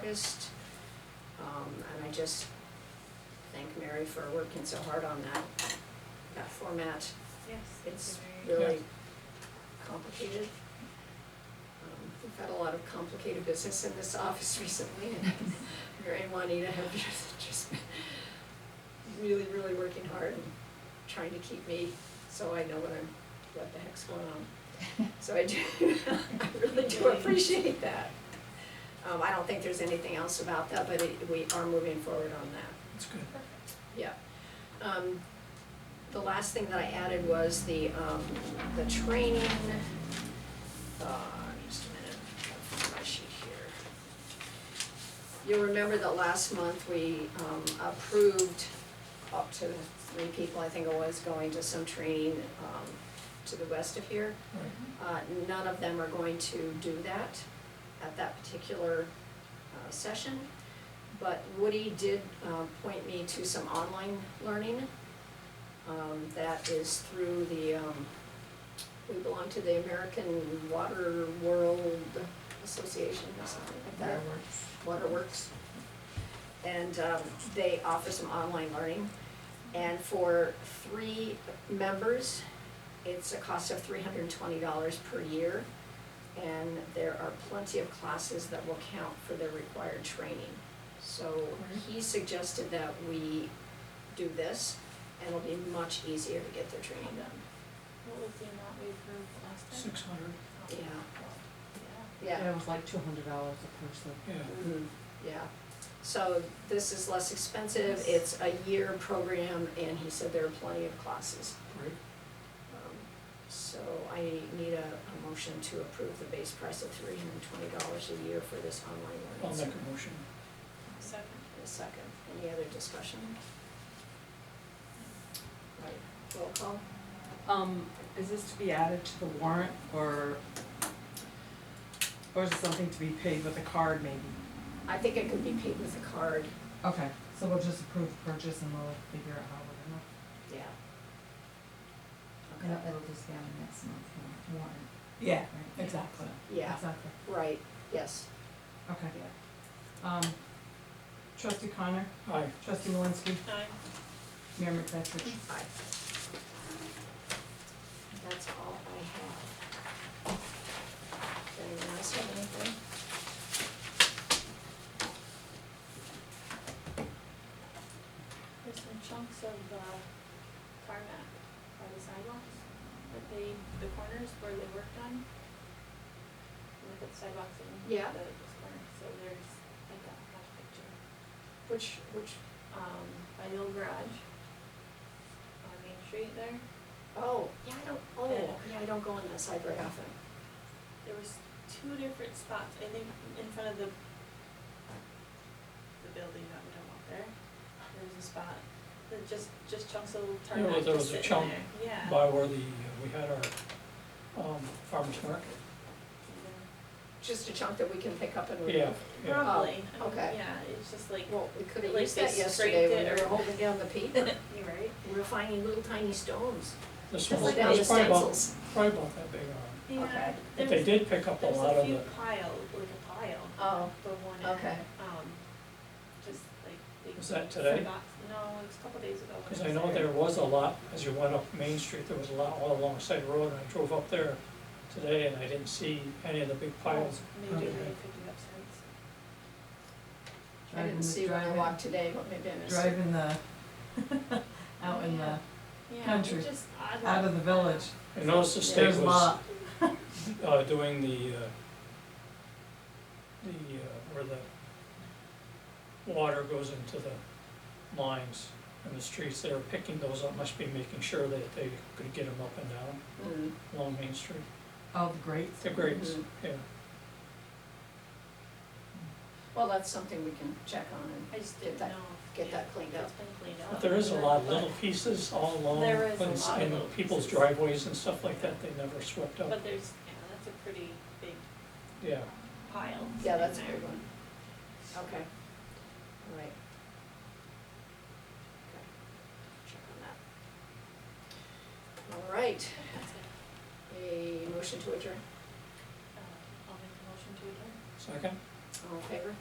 August. Um, and I just thank Mary for working so hard on that, that format. Yes, It's it's very. really complicated. Um, We've had a lot of complicated business in this office recently, and Mary and Juanita have just- just been really, really working hard and trying to keep me, so I know what I'm, what the heck's going on. So I do, I really do appreciate that. Um, I don't think there's anything else about that, but it, we are moving forward on that. That's good. Yeah. Um, the last thing that I added was the, um, the training, uh, just a minute, I'll find my sheet here. You'll remember that last month we, um, approved up to three people, I think it was, going to some training, um, to the west of here. Right. Uh, none of them are going to do that at that particular uh, session. But Woody did uh, point me to some online learning. um, That is through the, um, we belong to the American Water World Association or something like that. Waterworks. And um, they offer some online learning. And for three members, it's a cost of three hundred and twenty dollars per year. And there are plenty of classes that will count for their required training. So he suggested that we do this, and it'll be much easier to get their training done. What was the amount we approved last time? Six hundred, Yeah, Yeah. yeah. It was like two hundred dollars a person. yeah. Mhm, Yeah, so this is less expensive, it's a year program, and he said there are plenty of classes. Great. Um, So I need a, a motion to approve the base price of three hundred and twenty dollars a year for this online I'll learning. make a motion. Second. In a second, any other discussion? Right, roll call? Um, is this to be added to the warrant or, or is it something to be paid with a card maybe? I think it could be paid with a card, Okay, so we'll just approve purchase and we'll figure out how we're gonna. yeah. And Okay, it'll just be on the next month's warrant, Yeah, right? exactly. yeah, Exactly, right, yes, okay. yeah. Um, trustee Connor, Aye. trustee Malinsky, Nine. Mayor McFetrich. Aye. That's all I have. Does anyone else have anything? There's some chunks of, uh, tarmac by the sidewalks, that they, the corners where they worked on. Look at the sidewalks and the, Yeah. those corners, so there's, I got that picture, Which, which, um, by the old garage. On Main Street there, oh, yeah, I don't, oh, Yeah. yeah, I don't go on that side very often. there was two different spots, I think in front of the, the building, I don't walk there. There was a spot, that just, just chunks of There was- tarmac there just was a sitting chunk there, yeah. By where the, uh, we had our, um, farmer's market. Just a chunk that we can pick up and Yeah, remove. yeah. Probably. Oh, okay. Yeah, it's just like, Well, we could have Like used they that yesterday scraped when it we were or- holding down the paper. you're right. We were finding little tiny stones. This Just one was, like down it the was probably about, stencils. probably about that big around. Yeah, Okay. But they there's, did pick up a there's lot a of few the, pile, like a pile, Oh, the one in, Okay. um, just like they Was that today? forgot- No, it was a couple days ago. when because I I was know there was a lot, as you went up Main Street, there was a lot all alongside the road, and I drove up there today, and I didn't see any of the big piles. Maybe they Okay. picked it up since. I Driving didn't the- see when I driving- walked today, but maybe I missed it. Driving the, out in the, Yeah, Country. it's just odd. out of the village, I noticed the state there's a was, lot. uh, doing the, uh, the, uh, where the water goes into the lines and the streets, they were picking those up, must be making sure that they could get them up and down Mm, along Main Street. Oh, the grates. The grates, Mm-hmm. yeah. Well, that's something we can check on and I just Get didn't know. that- get that cleaned if up. It's been cleaned up. But there is a lot of but- little pieces all along, Oh, There is a and s- lot of and little people's pieces. driveways and stuff like that, they never swept up, But there's, yeah, that's a pretty big yeah. pile. Yeah, that's a sitting there. good one. Okay, all right. Okay, check on that. All right, That's it. a motion to adjourn, Uh, I'll make a motion to adjourn. Second? all in favor?